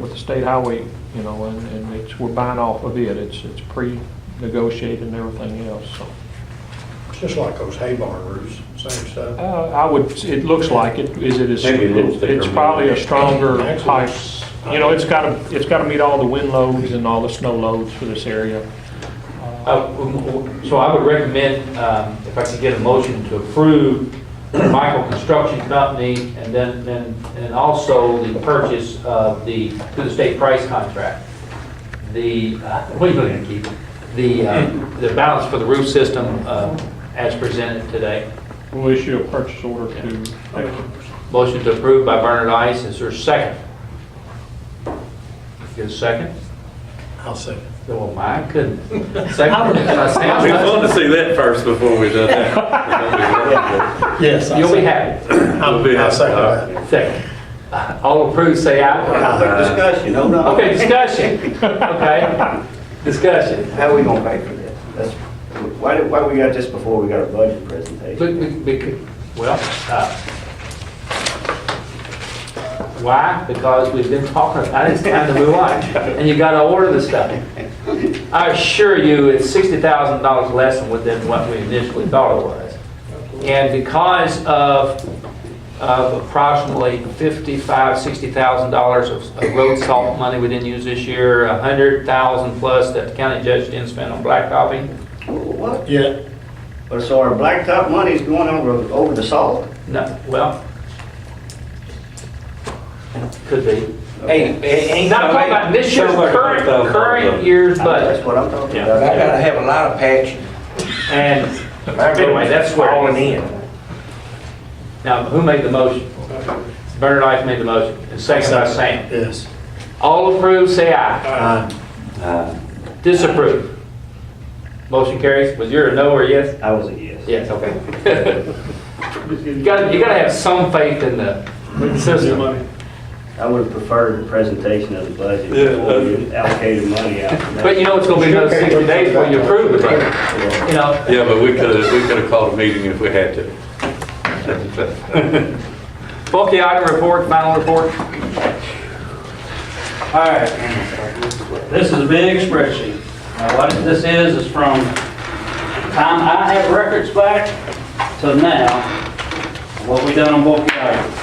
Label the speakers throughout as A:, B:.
A: with the state highway, you know, and, and it's, we're buying off of it. It's, it's pre-negotiated and everything else, so.
B: It's just like those hay barn roofs, same stuff.
A: Uh, I would, it looks like it, is it is,
C: Maybe a little thicker.
A: it's probably a stronger
B: Actually,
A: pipe.
B: it's-
A: You know, it's gotta, it's gotta meet all the wind loads and all the snow loads for this area.
C: Uh, w- w- So I would recommend, um, if I could get a motion to approve Michael Construction Company and then, then- and also the purchase of the, to the state price contract. The, uh, what are you looking at, Keith? The, uh, the balance for the roof system uh, as presented today.
A: We'll issue a purchase order to, uh,
C: Motion to approve by Bernard Ice, is there a second? Get a second?
B: I'll say.
C: Oh, my goodness. Second.
D: We wanted to see that first before we done that.
B: Yes.
C: You'll be happy.
B: I'll I'll second
D: uh,
B: that.
C: Second. All approved, say aye.
E: Discussion, no, no.
C: Uh, Okay, discussion. Okay, discussion.
E: How we gonna pay for this? That's, why, did- why we got this before we got a budget
C: But
E: presentation?
C: we- we could- Well, uh, why? Because we've been talking about it, it's time to move on. And you gotta order the stuff. I assure you, it's sixty thousand dollars less than what- than what we initially thought it was. And because of, of approximately fifty-five, sixty thousand dollars of of road salt money we didn't use this year, a hundred thousand plus that the county judge didn't spend on blacktopping,
E: What?
B: Yeah,
E: But so our blacktop money's going over, over the salt?
C: No, well, could be.
E: Hey,
C: Not talking about this year's current, current year's
E: That's
C: budget.
E: what I'm talking
C: Yeah.
E: about.
F: I gotta have a lot of passion.
C: And anyway, that's where.
F: All in.
C: Now, who made the motion? Bernard Ice made the motion, and second by Sam.
B: yes.
C: All approve, say aye.
B: Uh,
C: Disapprove. Motion carries. Was your a no or a yes?
E: I was a yes.
C: Yes, okay. You gotta, you gotta have some faith in the system.
E: I would have preferred the presentation of the budget before we allocated money out.
C: But you know, it's gonna be another 60 days before you approve the budget. You know,
D: Yeah, but we could have, we could have called a meeting if we had to.
C: Bulky item report, final report.
G: All right. This is a big spreadsheet. Now, what this is, is from the time I have records back to now, what we done on both items.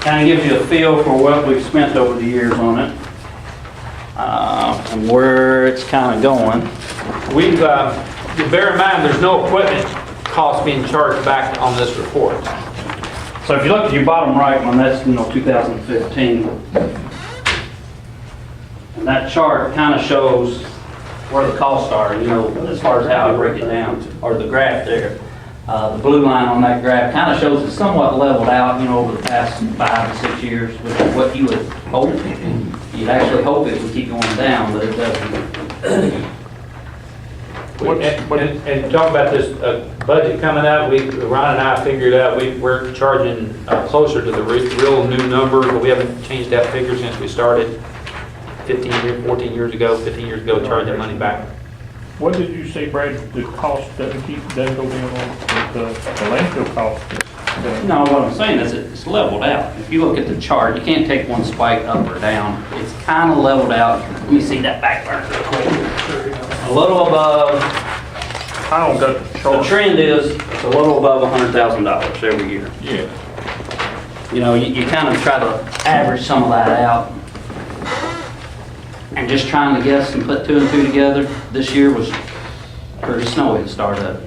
G: Kind of gives you a feel for what we've spent over the years on it, uh, and where it's kind of going.
C: We've, uh, you bear in mind, there's no equipment cost being charged back on this report.
G: So if you look at your bottom right one, that's, you know, 2015. And that chart kind of shows where the costs are, you know, as far as how I break it down, or the graph there. Uh, The blue line on that graph kind of shows it's somewhat leveled out, you know, over the past five to six years, which is what you would hope. You'd actually hope it would keep going down, but it doesn't.
C: And, and- and talk about this uh, budget coming out, we, Ron and I figured out, we, we're charging uh, closer to the re- real new number, but we haven't changed that figure since we started 15, year- 14 years ago, 15 years ago, charging money back.
A: what did you say, Brad, the cost doesn't keep, doesn't go down on, the the landfill cost? doesn't-
G: No, what I'm saying is it's leveled out. If you look at the chart, you can't take one spike up or down. It's kind of leveled out. Let me see that back burner real quick. A little above,
A: I don't got the
G: the
A: chart.
G: trend is it's a little above $100,000 every year.
A: Yeah.
G: You know, you, you kind of try to average some of that out. And just trying to guess and put two and two together, this year was pretty snowy to start up.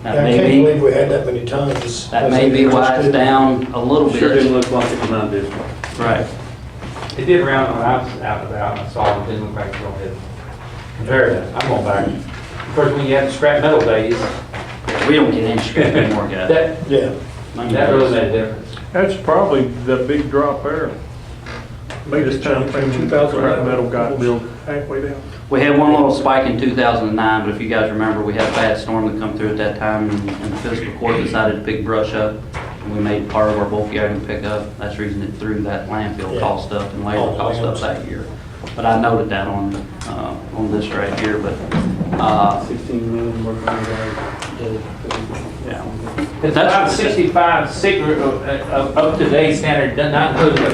B: I
G: That may
B: can't
G: be-
B: believe we had that many tons.
G: That may be why it's down a little bit.
F: look like it when I did.
G: Right.
C: It did round when I was out and about, and I saw it, didn't look like it was going Comparative, I'm going back. Of course, when you had scrap metal days,
G: We don't get any scrap anymore, guys.
C: that,
B: Yeah.
C: that really made a difference.
A: That's probably the big drop there. Biggest time frame, two thousand metal got built halfway down.
G: We had one little spike in 2009, but if you guys remember, we had a bad storm that come through at that time, and and the fiscal court decided to big brush up, and we made part of our bulk item pickup. That's the reason it threw that landfill
B: Yeah.
G: cost up and labor
B: Oh,
G: cost up
B: landfill.
G: that year. But I noted that on, uh, on this right here, but, uh,
F: 16 million working
G: yeah.
C: It's about 65, six, uh, uh, up to date standard, does not include the